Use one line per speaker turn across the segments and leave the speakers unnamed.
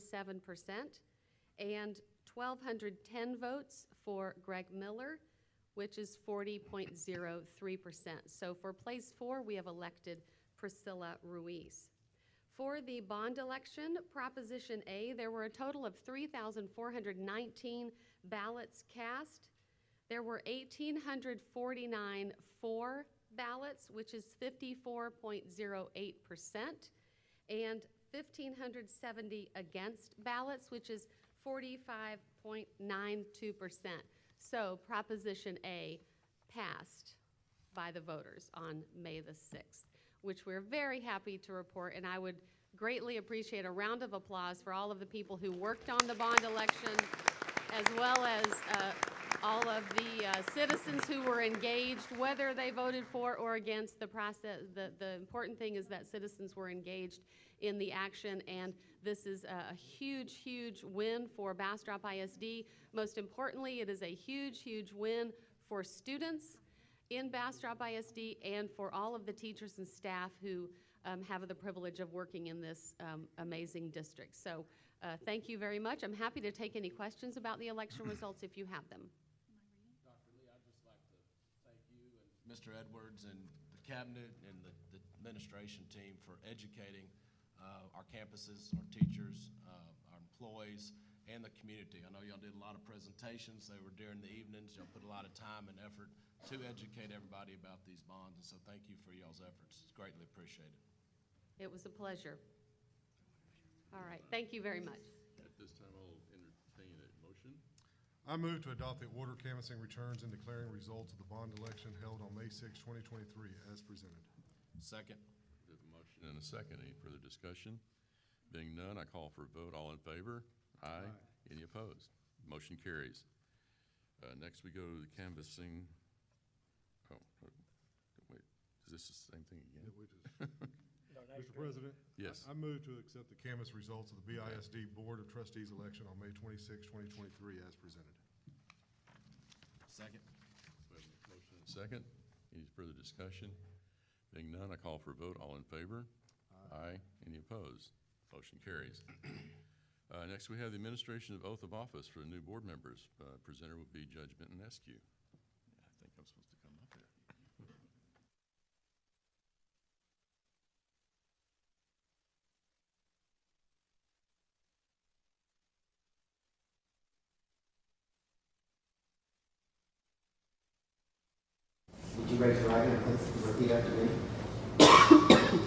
seven percent, and twelve hundred ten votes for Greg Miller, which is forty point zero three percent. So for place four, we have elected Priscilla Ruiz. For the bond election, Proposition A, there were a total of three thousand four hundred nineteen ballots cast. There were eighteen hundred forty-nine for ballots, which is fifty-four point zero eight percent and 1,570 against ballots, which is 45.92%. So Proposition A passed by the voters on May the 6th, which we're very happy to report, and I would greatly appreciate a round of applause for all of the people who worked on the bond election, as well as uh, all of the uh, citizens who were engaged, whether they voted for or against the process. The, the important thing is that citizens were engaged in the action, and this is a a huge, huge win for Bastrop ISD. Most importantly, it is a huge, huge win for students in Bastrop ISD and for all of the teachers and staff who um, have the privilege of working in this um, amazing district. So uh, thank you very much. I'm happy to take any questions about the election results if you have them.
Mr. Edwards and the cabinet and the the administration team for educating uh, our campuses, our teachers, uh, our employees, and the community. I know y'all did a lot of presentations, they were during the evenings, y'all put a lot of time and effort to educate everybody about these bonds, and so thank you for y'all's efforts, it's greatly appreciated.
It was a pleasure. All right, thank you very much.
At this time, I'll entertain a motion.
I move to adopt the order canvassing returns and declaring results of the bond election held on May 6, 2023, as presented.
Second.
There's a motion and a second. Any further discussion? Being none, I call for a vote. All in favor? Aye. Any opposed? Motion carries. Uh, next, we go to the canvassing. Oh, oh, wait, is this the same thing again?
Mr. President?
Yes.
I- I move to accept the canvass results of the BISD Board of Trustees election on May 26, 2023, as presented.
Second.
We have a Motion and a second. Any further discussion? Being none, I call for a vote. All in favor? Aye. Any opposed? Motion carries. Uh, next, we have the administration of oath of office for the new board members. Uh, presenter will be Judge Benton Eskew. I think I'm supposed to come up here.
Would you raise your right hand, please, and repeat after me?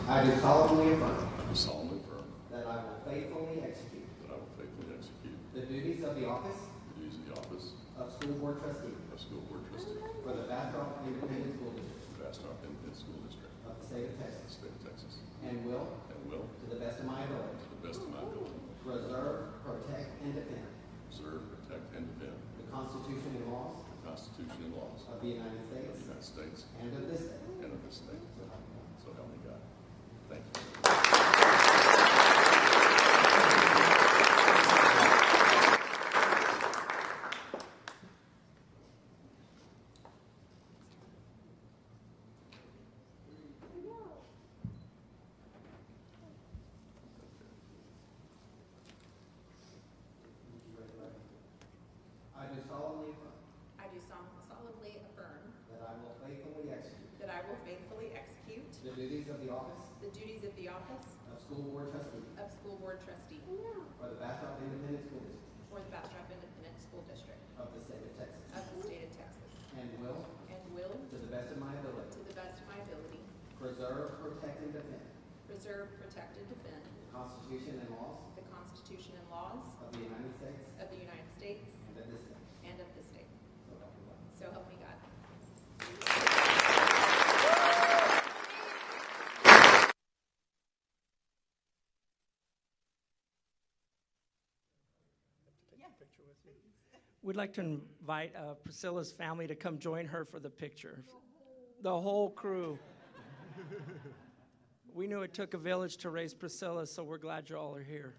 I do solemnly affirm
I solemnly affirm
that I will faithfully execute
that I will faithfully execute
the duties of the office
the duties of the office
of school board trustee
of school board trustee
for the Bastrop Independent School District
of Bastrop Independent School District
of the state of
of the
Texas,
state of Texas,
and will,
and will,
to the best of my ability,
to the best of my ability,
preserve, protect, and defend
observe, protect, and defend
the Constitution and laws
the Constitution and laws
of the United
of the
States
United States
and of this state.
and of this state.
So help me God.
So help me God. Thank you.
Would you raise your right hand? I do solemnly affirm
I do sol- solemnly affirm
that I will faithfully execute
that I will faithfully execute
the duties of the office
the duties of the office
of school board trustee
of school board trustee
for the Bastrop Independent School District
for the Bastrop Independent School District
of the state of Texas,
of the state of Texas,
and will,
and will,
to the best of my
to
ability,
the best of my ability,
preserve, protect, and defend
preserve, protect, and defend
the Constitution and laws
the Constitution and laws
of the United States
of the United States
and of this state.
and of this state.
So help me God.
So help me God.
We'd like to invite uh, Priscilla's family to come join her for the picture. The whole crew. We knew it took a village to raise Priscilla, so we're glad you all are here.